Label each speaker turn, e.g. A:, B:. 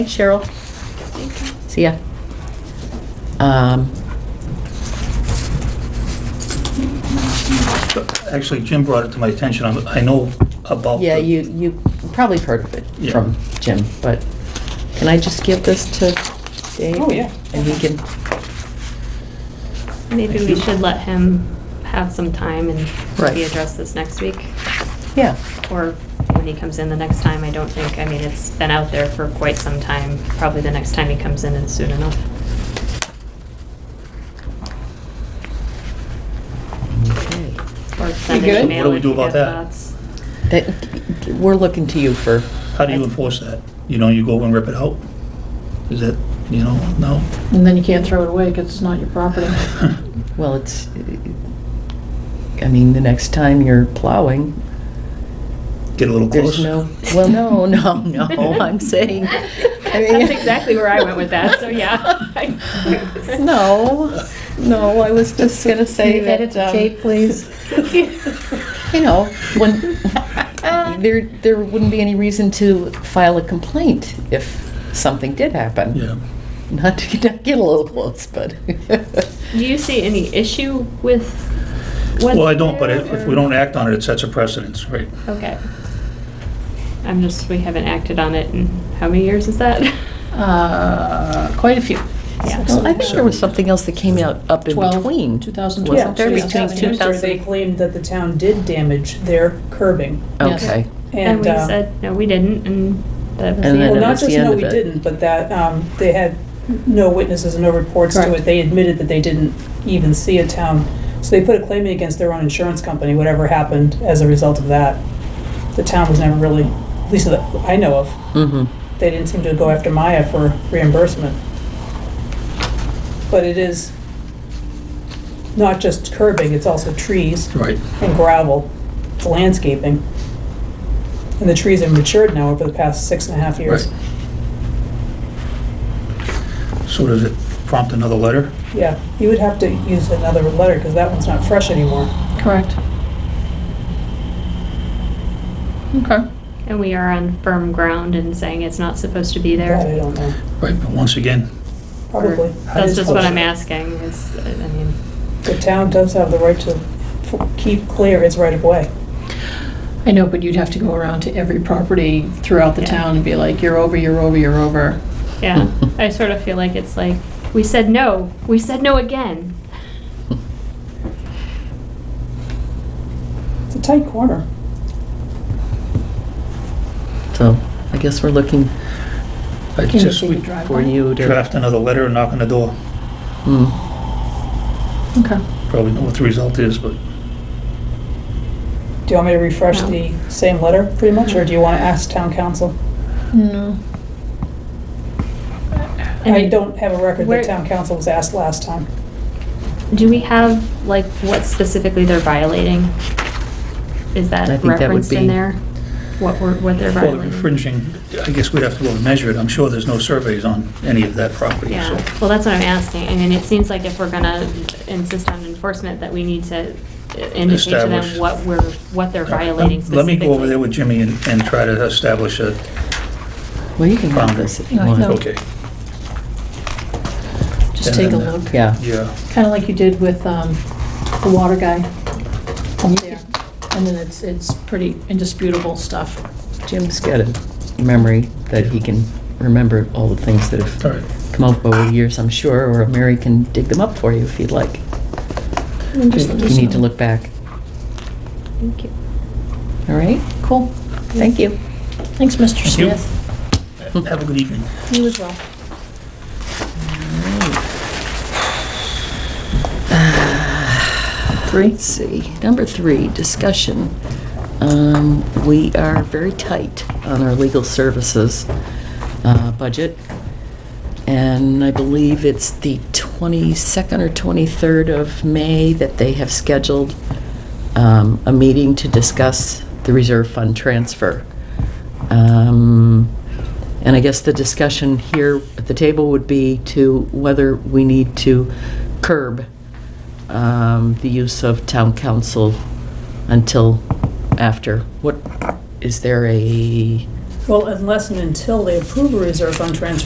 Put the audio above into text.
A: Cheryl. See ya. Um,
B: Actually, Jim brought it to my attention. I'm- I know about. the-
A: Yeah, you, you probably have heard of it
B: Yeah.
A: from Jim, but can I just give this to Dave?
C: Oh, yeah.
A: And he can,
D: Maybe
B: Thank
D: we
B: you.
D: should let him have some time and
A: Right.
D: maybe address this next week,
A: yeah,
D: or when he comes in the next time, I don't think, I mean, it's been out there for quite some time, probably the next time he comes in is soon enough.
A: okay.
D: Or send
C: good?
D: an
B: What
D: email
B: do we
D: if
B: do
D: you
B: about
D: have
B: that?
D: thoughts.
A: That, we're looking to you for,
B: How do you enforce that? You know, you go and rip it out? Is that, you know, no?
C: And then you can't throw it away because it's not your property.
A: well, it's, I mean, the next time you're plowing,
B: Get a little close?
A: there's no, well, no, no, no, I'm saying. I mean-
D: That's exactly where I went with that, so yeah.
A: No, no, I was just gonna say
E: Can you edit
A: that. um,
E: Kate, please?
A: You know, when, there, there wouldn't be any reason to file a complaint if something did happen.
B: Yeah.
A: Not to get get a little close, but.
D: Do you see any issue with what's
B: Well, I don't, but if
D: there,
B: if we
D: or-
B: don't act on it, it sets a precedence, right?
D: Okay. I'm just, we haven't acted on it in, how many years is that?
C: Uh, Quite a few.
D: Yeah.
A: Well, I think there was something else that came out up in
C: Twelve,
A: between.
C: 2012,
A: Wasn't there
C: Yeah.
A: between
C: 2000.
A: 2000?
F: They claimed that the town did damage their curbing.
C: Yes.
A: Okay,
D: And we
F: uh,
D: said, no, we didn't, and that
A: And
D: was the
A: then
D: end
F: Well,
A: it
D: of
F: not
A: was
D: it.
F: just
A: the end
F: no,
A: of
F: we
A: it.
F: didn't, but that um, they had no witnesses and no reports to
C: Correct.
F: it. They admitted that they didn't even see a town. So they put a claim in against their own insurance company, whatever happened as a result of that. The town was never really, at least that I know of,
A: mm-hmm,
F: they didn't seem to go after Maya for reimbursement. But it is not just curbing, it's also trees.
B: Right.
F: and gravel, it's landscaping. And the trees have matured now over the past six and a half years.
B: Right. So does it prompt another letter?
F: Yeah, you would have to use another letter because that one's not fresh anymore.
C: Correct. Okay.
D: And we are on firm ground and saying it's not supposed to be
F: That I
D: there.
F: don't know,
B: Right, but once again,
F: probably.
D: That's just what I'm asking, is, I mean,
F: The town does have the right to f- keep clear its right of way.
C: I know, but you'd have to go around to every property throughout the
D: Yeah.
C: town and be like, you're over, you're over, you're over.
D: yeah, I sort of feel like it's like, we said no, we said no again.
F: It's a tight corner.
A: so I guess we're looking
B: I
C: Can you
B: just,
C: see
B: we
C: the driveway?
A: for you to.
B: draft another letter and knock on the door.
A: Hmm.
C: Okay.
B: Probably know what the result is, but
F: Do you want me to refresh
D: No.
F: the same letter pretty much, or do you want to ask town council?
C: No.
F: I don't have a record
D: where-
F: that town council was asked last time.
D: Do we have, like, what specifically they're violating? Is that
A: I think that would
D: referenced
A: be-
D: in there? What we're, what they're
B: Well, the
D: violating?
B: infringing, I guess we'd have to go and measure it. I'm sure there's no surveys on any of that property,
D: Yeah,
B: so.
D: well, that's what I'm asking. I mean, it seems like if we're gonna insist on enforcement, that we need to indicate to
B: Establish.
D: them what we're, what they're
B: All right,
D: violating
B: let- Let me
D: specifically.
B: go over there with Jimmy and, and try to establish a,
A: Well, you can have
B: Um,
A: this if you
C: no, no.
A: want.
B: okay,
C: Just
B: And
C: take a
B: then uh,
C: look.
A: Yeah,
B: yeah.
C: Kind of like you did with um, the water guy. And then it's, it's pretty indisputable stuff.
A: Jim's got a memory that he can remember all the things that have
B: All right.
A: come up over the years, I'm sure, or Mary can dig them up for you if you'd like.
C: Just let
A: You
C: us
A: need to
C: know.
A: look back.
D: Thank you.
A: All right?
C: Cool.
A: Thank you.
C: Thanks, Mr.
B: Thank you.
C: Smith.
B: Have a good evening.
C: You as well.
A: Three. See, number three, discussion. Um, We are very tight on our legal services uh, budget, and I believe it's the 22nd or 23rd of May that they have scheduled um, a meeting to discuss the reserve fund transfer. Um, And I guess the discussion here at the table would be to whether we need to curb um, the use of town council until after. What, is there a
F: Well, unless and until they approve a reserve fund transfer